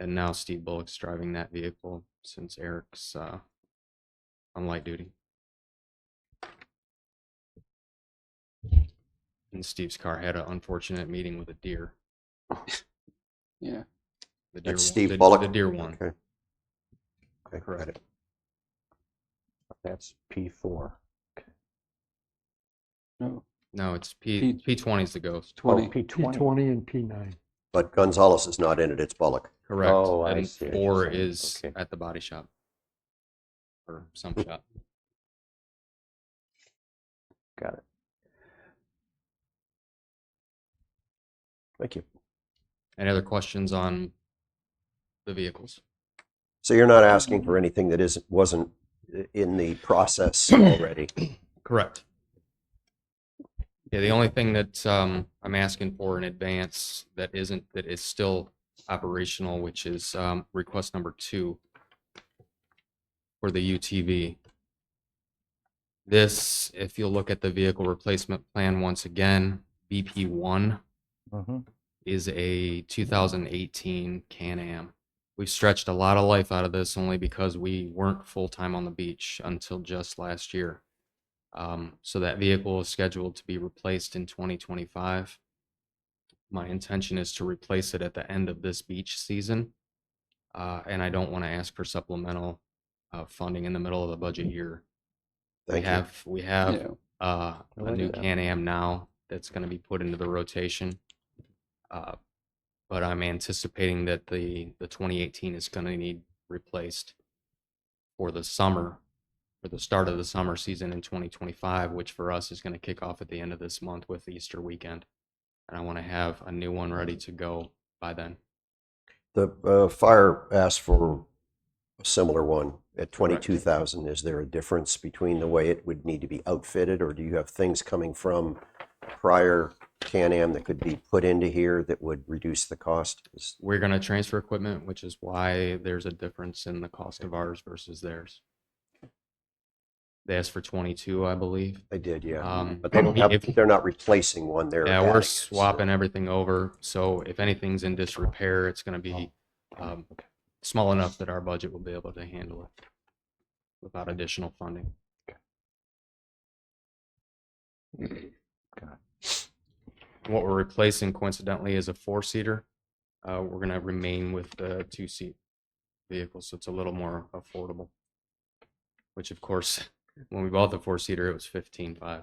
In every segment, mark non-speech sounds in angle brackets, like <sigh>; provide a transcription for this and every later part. And now Steve Bullock's driving that vehicle since Eric's uh, on light duty. And Steve's car had an unfortunate meeting with a deer. Yeah. The deer That's won- Steve the- Bullock? The deer one. Okay. Okay, got Correct. it. That's P four. Oh, No, No, it's P P- P twenty is the ghost. Oh, 20. P P twenty. twenty and P nine. But Gonzalez is not in it, it's Bullock. Correct. Oh, I and see what you're four saying. is Okay. Hmm. at the body shop or some shop. Got it. Thank you. Any other questions on the vehicles? So you're not asking Mm-hmm. for anything that isn't, wasn't uh, in the <coughs> process already? Correct. Yeah, the only thing that um, I'm asking for in advance that isn't, that is still operational, which is um, request number two for the UTV. This, if you'll look at the vehicle replacement plan once again, BP one is a 2018 Can-Am. We've stretched a lot of life out of this only because we weren't full-time on the beach until just last year. Um, so that vehicle is scheduled to be replaced in 2025. My intention is to replace it at the end of this beach season. Uh, and I don't want to ask for supplemental uh, funding in the middle of the budget year. Mm-hmm. Thank we you. have we have Yeah. uh, I a like new that. Can-Am now that's going to be put into the rotation. Uh, but I'm anticipating that the the 2018 is going to need replaced for the summer, for the start of the summer season in 2025, which for us is going to kick off at the end of this month with Easter weekend, and I want to have a new one ready to go by then. The uh, fire asked for a similar one at twenty-two thousand. Is there a difference between the way it would need to be outfitted, or do you have things coming from prior Can-Am that could be put into here that would reduce the cost? Is- We're going to transfer equipment, which is why there's a difference in the cost of ours versus theirs. They asked for 22, I believe. They did, yeah. Um, But they don't have, if- they're not replacing one, they're. Yeah, adding we're it, so- swapping everything over, so if anything's in disrepair, it's gonna be, um, small enough that our budget will be able to handle it without additional funding. What we're replacing coincidentally is a four-seater. Uh, we're gonna remain with the two-seat vehicle, so it's a little more affordable. Which of course, <laughs> when we bought the four-seater, it was fifteen-five.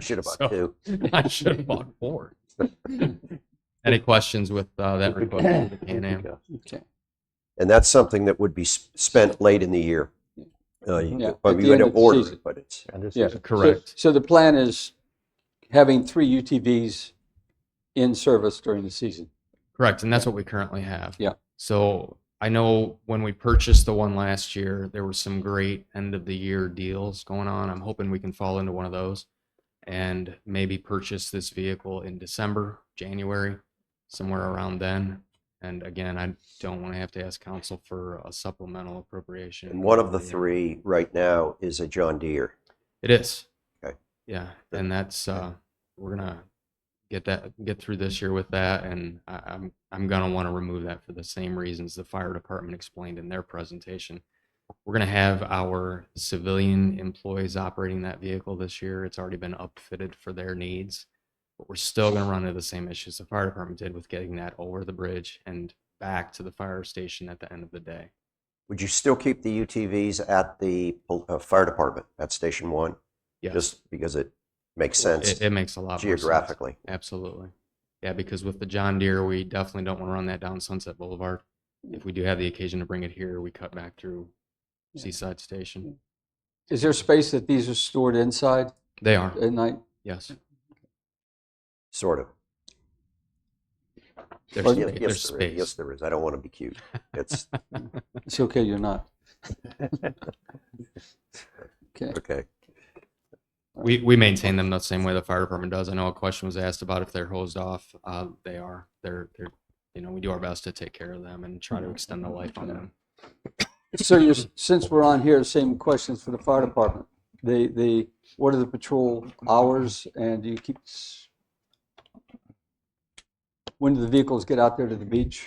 Should <laughs> have So- bought two. I should have bought four. Any questions with uh, that <clears throat> request <coughs> from the Can-Am? Okay. And that's something that would be s- spent late in the year. Uh, you- Yeah, Well, at you the end end up of the ordering, season. it, but it's, And this Yeah. is So- Correct. So the plan is having three UTVs in service during the season. Correct, and that's what we currently have. Yeah. So I know when we purchased the one last year, there were some great end of the year deals going on. I'm hoping we can fall into one of those and maybe purchase this vehicle in December, January, somewhere around then. And again, I don't want to have to ask council for a supplemental appropriation. and one of the three right now is a John Deere. It is. Okay. Yeah, and that's, uh, we're gonna get that, get through this year with that, and I, I'm, I'm gonna wanna remove that for the same reasons the fire department explained in their presentation. We're gonna have our civilian employees operating that vehicle this year. It's already been upfitted for their needs. But we're still gonna run into the same issues the fire department did with getting that over the bridge and back to the fire station at the end of the day. Would you still keep the UTVs at the pol- uh, fire department at Station One? Yes, Just because it makes it, sense it makes a lot more sense. geographically. Absolutely. Yeah, because with the John Deere, we definitely don't want to run that down Sunset Boulevard. If we do have the occasion to bring it here, we cut back through Yeah. Seaside Station. Is there space that these are stored inside They are, at night? yes. Sort of. There's, Or- spa- Yeah, there's Yes, there is. Yes, space. there is. I don't want to be cute. <laughs> It's It's okay, you're not. Okay. okay. We, we maintain them the same way the fire department does. I know a question was asked about if they're hosed off. Uh, they are. They're, they're, you know, we do our best to take care of them and try to extend the life on them. So you're, since we're on here, same questions for the fire department. The, the, what are the patrol hours and do you keep, s- when do the vehicles get out there to the beach?